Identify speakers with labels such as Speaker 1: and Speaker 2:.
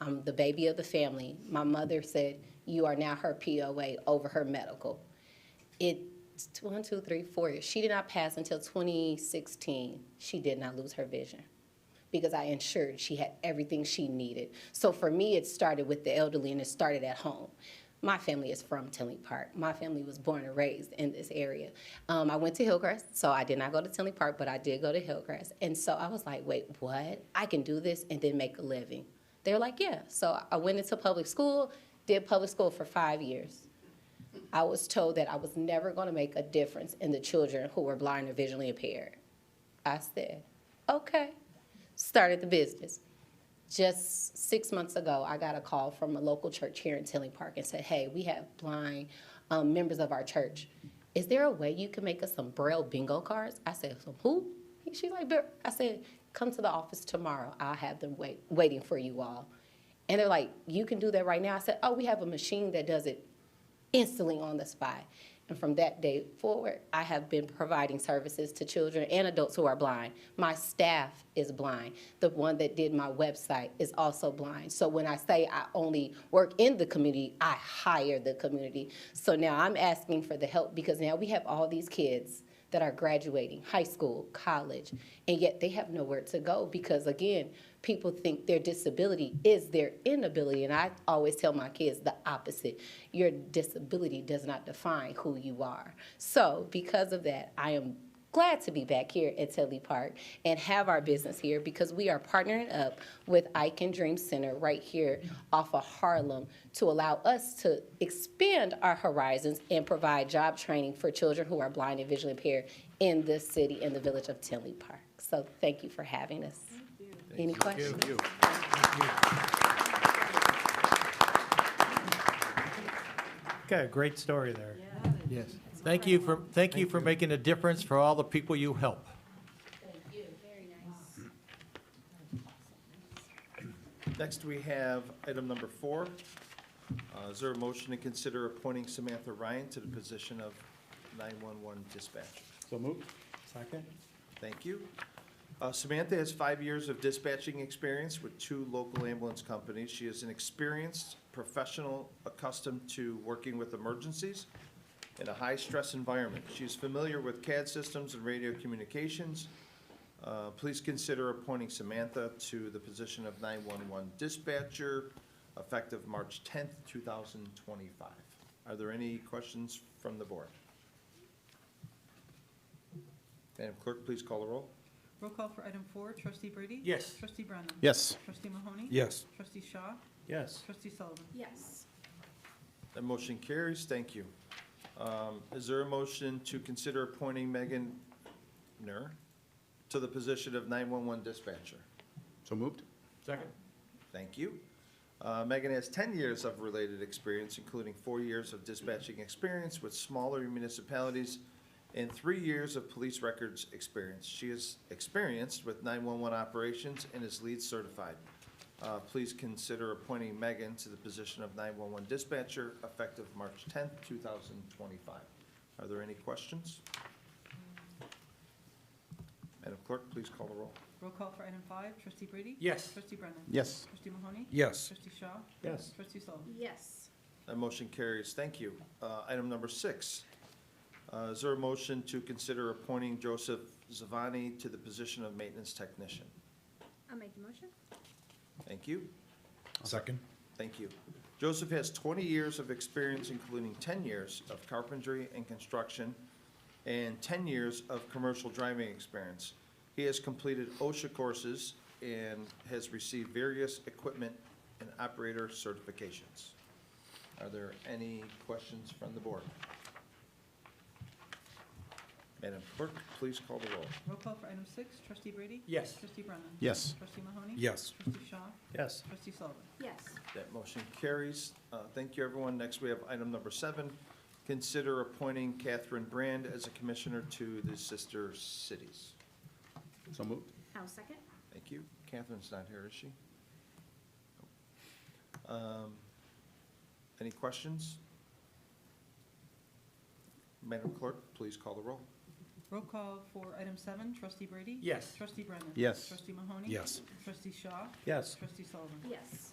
Speaker 1: I'm the baby of the family. My mother said, You are now her POA over her medical. It's t- one, two, three, four years. She did not pass until 2016. She did not lose her vision because I ensured she had everything she needed. So for me, it started with the elderly and it started at home. My family is from Tinley Park. My family was born and raised in this area. Um, I went to Hillcrest, so I did not go to Tinley Park, but I did go to Hillcrest. And so I was like, wait, what? I can do this and then make a living. They were like, yeah. So I went into public school, did public school for five years. I was told that I was never going to make a difference in the children who were blind or visually impaired. I said, okay. Started the business. Just six months ago, I got a call from a local church here in Tilling Park and said, hey, we have blind um, members of our church. Is there a way you can make us some Braille bingo cards? I said, some who? She's like, "Bra-" I said, come to the office tomorrow. I'll have them wait, waiting for you all. And they're like, you can do that right now. I said, oh, we have a machine that does it instantly on the spot. And from that day forward, I have been providing services to children and adults who are blind. My staff is blind. The one that did my website is also blind. So when I say I only work in the community, I hire the community. So now I'm asking for the help because now we have all these kids that are graduating high school, college, and yet they have nowhere to go because, again, people think their disability is their inability. And I always tell my kids the opposite your disability does not define who you are. So, because of that, I am glad to be back here at Telly Park and have our business here because we are partnering up with I Can Dream Center right here off of Harlem to allow us to expand our horizons and provide job training for children who are blind and visually impaired in this city and the village of Tinley Park. So thank you for having us. Any questions?
Speaker 2: Thank you.
Speaker 3: Okay, great story there.
Speaker 2: Yes. Thank you for, thank you for making a difference for all the people you help.
Speaker 4: Next, we have item number four. Uh, Is there a motion to consider appointing Samantha Ryan to the position of 911 dispatcher?
Speaker 3: So moved. Second?
Speaker 4: Thank you. Uh, Samantha has five years of dispatching experience with two local ambulance companies. She is an experienced professional accustomed to working with emergencies in a high-stress environment. She is familiar with CAD systems and radio communications. Uh, Please consider appointing Samantha to the position of 911 dispatcher effective March 10th, 2025. Are there any questions from the board? Madam Clerk, please call the roll.
Speaker 5: Roll call for item four, trustee Brady?
Speaker 2: Yes.
Speaker 5: Trustee Brennan?
Speaker 4: Yes.
Speaker 5: Trustee Mahoney?
Speaker 2: Yes.
Speaker 5: Trustee Shaw?
Speaker 3: Yes.
Speaker 5: Trustee Sullivan?
Speaker 6: Yes.
Speaker 4: That motion carries, thank you. Um, Is there a motion to consider appointing Megan Nur to the position of 911 dispatcher?
Speaker 7: So moved?
Speaker 2: Second.
Speaker 4: Thank you. Uh, Megan has 10 years of related experience, including four years of dispatching experience with smaller municipalities and three years of police records experience. She is experienced with 911 operations and is LEED certified. Uh, Please consider appointing Megan to the position of 911 dispatcher effective March 10th, 2025. Are there any questions? Madam Clerk, please call the roll.
Speaker 5: Roll call for item five, trustee Brady?
Speaker 2: Yes.
Speaker 5: Trustee Brennan?
Speaker 7: Yes.
Speaker 5: Trustee Mahoney?
Speaker 2: Yes.
Speaker 5: Trustee Shaw?
Speaker 3: Yes.
Speaker 5: Trustee Sullivan?
Speaker 6: Yes.
Speaker 4: That motion carries. Thank you. Uh, Item number six. Uh, Is there a motion to consider appointing Joseph Zavani to the position of maintenance technician?
Speaker 6: I'll make the motion.
Speaker 4: Thank you.
Speaker 7: Second?
Speaker 4: Thank you. Joseph has 20 years of experience, including 10 years of carpentry and construction and 10 years of commercial driving experience. He has completed OSHA courses and has received various equipment and operator certifications. Are there any questions from the board? Madam Clerk, please call the roll.
Speaker 5: Roll call for item six, trustee Brady?
Speaker 2: Yes.
Speaker 5: Trustee Brennan?
Speaker 7: Yes.
Speaker 5: Trustee Mahoney?
Speaker 2: Yes.
Speaker 5: Trustee Shaw?
Speaker 3: Yes.
Speaker 5: Trustee Sullivan?
Speaker 6: Yes.
Speaker 4: That motion carries. Uh, Thank you, everyone. Next, we have item number seven. Consider appointing Catherine Brand as a commissioner to the sister cities.
Speaker 7: So moved?
Speaker 6: I'll second.
Speaker 4: Thank you. Catherine's not here, is she? Um, Any questions? Madam Clerk, please call the roll.
Speaker 5: Roll call for item seven, trustee Brady?
Speaker 2: Yes.
Speaker 5: Trustee Brennan?
Speaker 7: Yes.
Speaker 5: Trustee Mahoney?
Speaker 2: Yes.
Speaker 5: Trustee Shaw?
Speaker 3: Yes.
Speaker 5: Trustee Sullivan?
Speaker 6: Yes.